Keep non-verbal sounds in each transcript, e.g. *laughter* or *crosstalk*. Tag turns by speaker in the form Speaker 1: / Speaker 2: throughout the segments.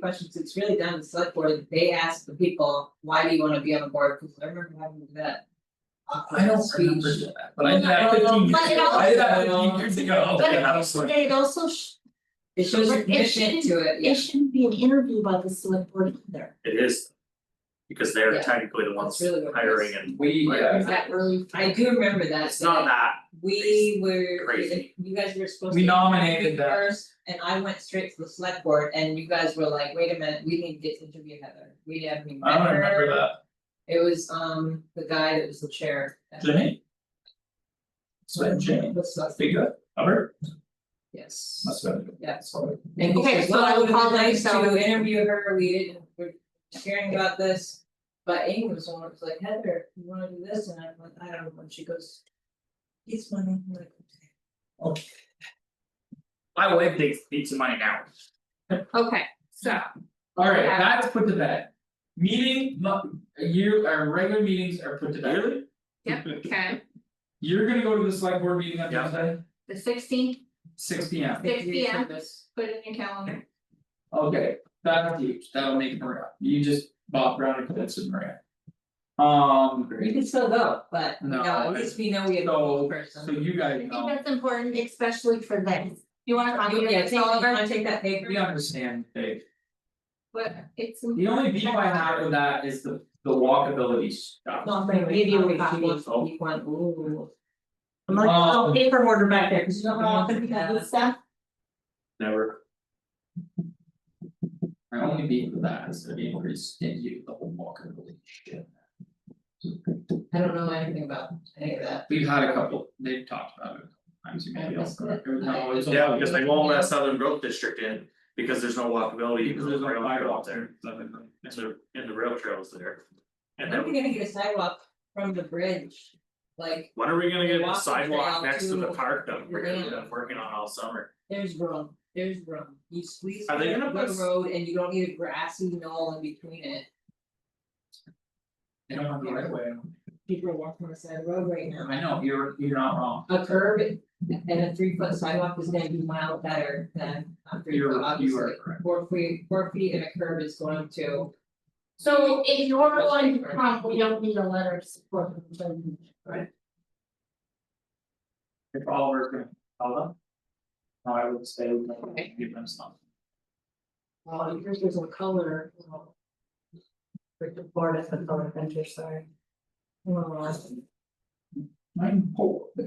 Speaker 1: questions, it's really down to the select board, they ask the people, why do you wanna be on the board, cause I remember having that.
Speaker 2: I I don't remember
Speaker 1: Speech.
Speaker 2: that, but I did that
Speaker 1: Well,
Speaker 2: fifteen years,
Speaker 3: but it
Speaker 2: ago. I did that
Speaker 1: also-
Speaker 2: fifteen years ago,
Speaker 3: *laughs* But
Speaker 2: and I Oh, was like,
Speaker 3: it also, sh-
Speaker 1: It shows your
Speaker 3: It
Speaker 1: commitment to it,
Speaker 3: it
Speaker 1: yeah,
Speaker 3: shouldn't be an interview by the select board either.
Speaker 4: It is. Because they're
Speaker 1: Yeah.
Speaker 4: technically the ones
Speaker 1: That's really what it
Speaker 4: hiring
Speaker 1: is.
Speaker 4: and
Speaker 2: we, uh, yeah,
Speaker 3: Is that really?
Speaker 1: I do remember that,
Speaker 4: it's not that,
Speaker 1: We were,
Speaker 4: Crazy.
Speaker 1: you guys were supposed to.
Speaker 2: we nominated
Speaker 1: interview
Speaker 2: that,
Speaker 1: first, And I went straight to the select board and you guys were like, wait a minute, we need to get to interview Heather, we haven't even met
Speaker 2: I
Speaker 1: her.
Speaker 2: don't remember that,
Speaker 1: It was um the guy that was the chair.
Speaker 2: Jimmy? So Jimmy,
Speaker 1: What's that?
Speaker 2: big guy, Hubbard,
Speaker 1: Yes.
Speaker 2: must have been.
Speaker 1: Yeah.
Speaker 2: Sorry.
Speaker 1: And he
Speaker 3: Okay,
Speaker 1: says,
Speaker 3: so
Speaker 1: well, I would have
Speaker 3: I'll
Speaker 1: been nice
Speaker 3: call
Speaker 1: to
Speaker 3: myself.
Speaker 1: interview her, we didn't, we're hearing about this. But Amy was the one that was like, Heather, you wanna do this, and I'm like, I don't know, and she goes. It's money, I'm like, okay.
Speaker 4: my wife takes pizza money now,
Speaker 3: Okay, so.
Speaker 2: Alright, that's put to bed. Meeting, not, you, our regular meetings are put to bed.
Speaker 4: Really?
Speaker 3: Yep, okay,
Speaker 2: You're gonna go to the select board meeting on
Speaker 4: Yeah.
Speaker 2: Tuesday,
Speaker 3: the sixteenth,
Speaker 2: six P M,
Speaker 3: Six
Speaker 1: Thank you for
Speaker 3: PM.
Speaker 1: this.
Speaker 3: put it in your calendar.
Speaker 2: okay, that's huge, that'll make it around, you just bop around and convince it around. Um,
Speaker 1: You can still go, but you
Speaker 2: No,
Speaker 1: know, at least we know we have a
Speaker 2: so-
Speaker 1: person.
Speaker 2: so you
Speaker 3: I
Speaker 2: guys
Speaker 3: think
Speaker 2: know,
Speaker 3: that's important, especially for this. You wanna talk
Speaker 1: You-
Speaker 3: about
Speaker 1: Yeah,
Speaker 3: it,
Speaker 1: take, you
Speaker 3: Oliver,
Speaker 1: wanna take that paper,
Speaker 2: we understand, Dave,
Speaker 3: but it's.
Speaker 2: the only beef I have with that is the the walkability stuff.
Speaker 1: no, I'm gonna
Speaker 3: Give you a
Speaker 1: wait,
Speaker 3: copy.
Speaker 1: she wants to keep one, ooh.
Speaker 3: I'm like, oh,
Speaker 2: Um,
Speaker 3: paper order back there, cause you don't know how to do
Speaker 1: Yeah.
Speaker 3: this stuff.
Speaker 4: never,
Speaker 2: My only beef with that is they're being pretty stingy with the whole walkability shit.
Speaker 1: I don't know anything about any of that.
Speaker 2: We've had a couple, they've talked about it, I'm sure maybe I'll.
Speaker 1: That's it.
Speaker 2: No, it's
Speaker 4: yeah,
Speaker 2: all-
Speaker 4: because they won't let Southern Grove District in, because there's no walkability,
Speaker 2: Because there's no
Speaker 4: rail trail
Speaker 2: sidewalk
Speaker 4: out there,
Speaker 2: there.
Speaker 4: and the and the rail trails there. And
Speaker 1: When are we
Speaker 4: then,
Speaker 1: gonna get a sidewalk from the bridge? Like,
Speaker 4: when are we gonna get a
Speaker 1: Walk the trail
Speaker 4: sidewalk next to the
Speaker 1: to-
Speaker 4: park that we're gonna
Speaker 1: Yeah.
Speaker 4: be working on all summer?
Speaker 1: there's room, there's room, you squeeze
Speaker 4: Are they
Speaker 1: through
Speaker 4: gonna
Speaker 1: the
Speaker 4: put-
Speaker 1: road and you don't need a grassy knoll in between it.
Speaker 2: They don't have the right way.
Speaker 1: People are walking on the side of the road right now.
Speaker 2: I know, you're you're not wrong,
Speaker 1: A curb and a three foot sidewalk is gonna be mild better than a three foot,
Speaker 2: you're you
Speaker 1: obviously.
Speaker 2: are correct.
Speaker 1: Four feet, four feet and a curb is going to,
Speaker 3: So if you're going to come, we don't need a letter of support from the government.
Speaker 2: If Oliver's gonna tell them. No, I would say we don't
Speaker 3: Okay.
Speaker 2: give them some.
Speaker 3: Well, yours is a color. For the board of the color venture, sorry.
Speaker 2: Mine poor. *laughs* How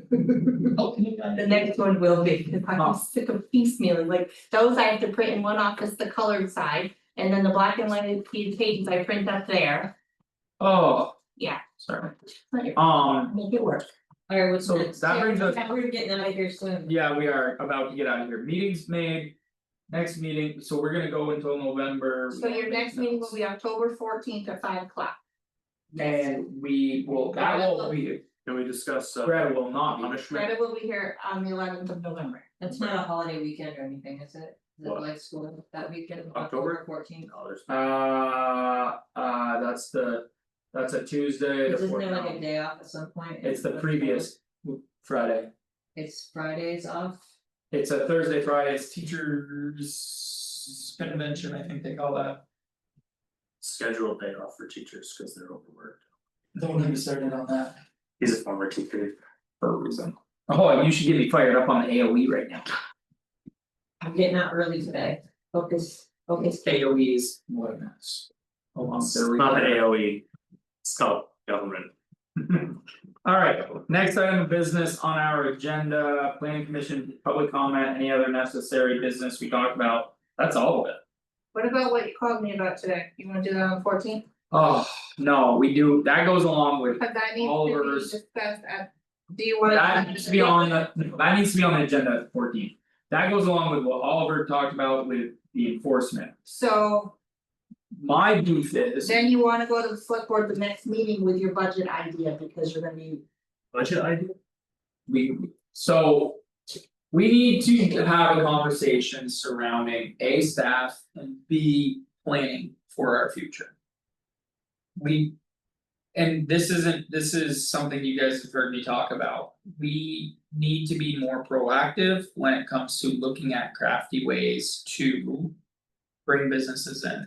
Speaker 2: can you guys-
Speaker 3: The next one will be, because I'm sick of piecemealing, like those I have to print in one office, the colored side. And then the black and white pages I print up there,
Speaker 2: Oh.
Speaker 3: Yeah.
Speaker 2: Sorry,
Speaker 3: Let it-
Speaker 2: um,
Speaker 3: make it work.
Speaker 1: alright, what's
Speaker 2: so
Speaker 1: next?
Speaker 2: that brings us,
Speaker 3: Yeah.
Speaker 1: We're getting out of here soon.
Speaker 2: yeah, we are about to get out of here, meetings made. Next meeting, so we're gonna go until November.
Speaker 3: So your next meeting will be October fourteenth at five o'clock.
Speaker 2: And we will, that will be,
Speaker 4: Can we discuss uh
Speaker 2: Greta will not be.
Speaker 4: punishment?
Speaker 3: Greta will be here on the eleventh of November.
Speaker 1: That's not a holiday weekend or anything, is it? Is it
Speaker 4: What?
Speaker 1: like school that weekend,
Speaker 4: October?
Speaker 1: October fourteenth?
Speaker 4: No, there's-
Speaker 2: Uh, uh, that's the, that's a Tuesday, the
Speaker 1: Isn't
Speaker 2: fourth,
Speaker 1: there like a
Speaker 2: no,
Speaker 1: day off at some point?
Speaker 2: it's the previous Friday,
Speaker 1: It's Fridays off,
Speaker 2: it's a Thursday, Friday, it's teachers. Convention, I think they call that.
Speaker 4: Scheduled day off for teachers, cause they're overworked,
Speaker 2: Don't get me started on that.
Speaker 4: he's a former teacher.
Speaker 2: For a reason. Oh, you should get me fired up on the AOE right now,
Speaker 1: I'm getting out early today, focus, focus.
Speaker 2: AOE is what a mess. Oh, I'm
Speaker 4: It's
Speaker 2: sorry.
Speaker 4: not an
Speaker 2: *laughs*
Speaker 4: AOE, it's called government.
Speaker 2: Alright, next item of business on our agenda, planning commission, public comment, any other necessary business we talked about, that's all of it.
Speaker 3: What about what you called me about today? You wanna do that on fourteenth?
Speaker 2: Oh, no, we do, that goes along with,
Speaker 3: Cause that needs to be
Speaker 2: Oliver's-
Speaker 3: discussed at, do you want?
Speaker 2: that needs to be on the, that needs to be on the agenda at fourteen. That goes along with what Oliver talked about with the enforcement.
Speaker 3: So
Speaker 2: My beef is,
Speaker 3: then you wanna go to the select board the next meeting with your budget idea because you're gonna be.
Speaker 4: Budget idea?
Speaker 2: we, so. We need to have a conversation surrounding A staff and B planning for our future. We. And this isn't, this is something you guys have heard me talk about, we need to be more proactive when it comes to looking at crafty ways to. bring businesses in.